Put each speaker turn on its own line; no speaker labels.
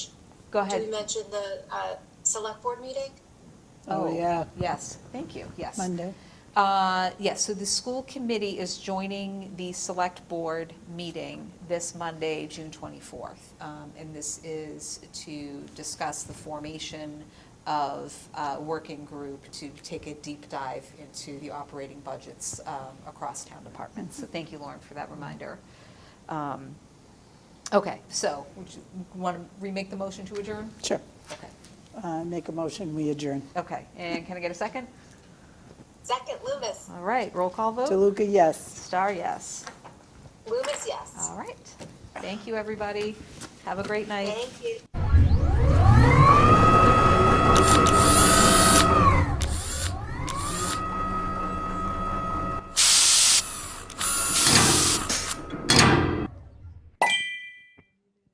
Go
Did we
ahead.
mention the uh, select board meeting?
Oh, yeah.
Yes, thank you, yes.
Monday.
Uh, Yes, so the school committee is joining the select board meeting this Monday, June 24th. Um, And this is to discuss the formation of a working group to take a deep dive into the operating budgets um, across town departments. So thank you, Lauren, for that reminder. Um, Okay, so would you want to remake the motion to adjourn?
Sure.
Okay,
Uh, Make a motion, we adjourn.
Okay. and can I get a second?
Second, Loomis.
All right, roll call vote.
DeLuca, yes.
Star, yes.
Loomis, yes.
All right. Thank you, everybody. Have a great night.
Thank you.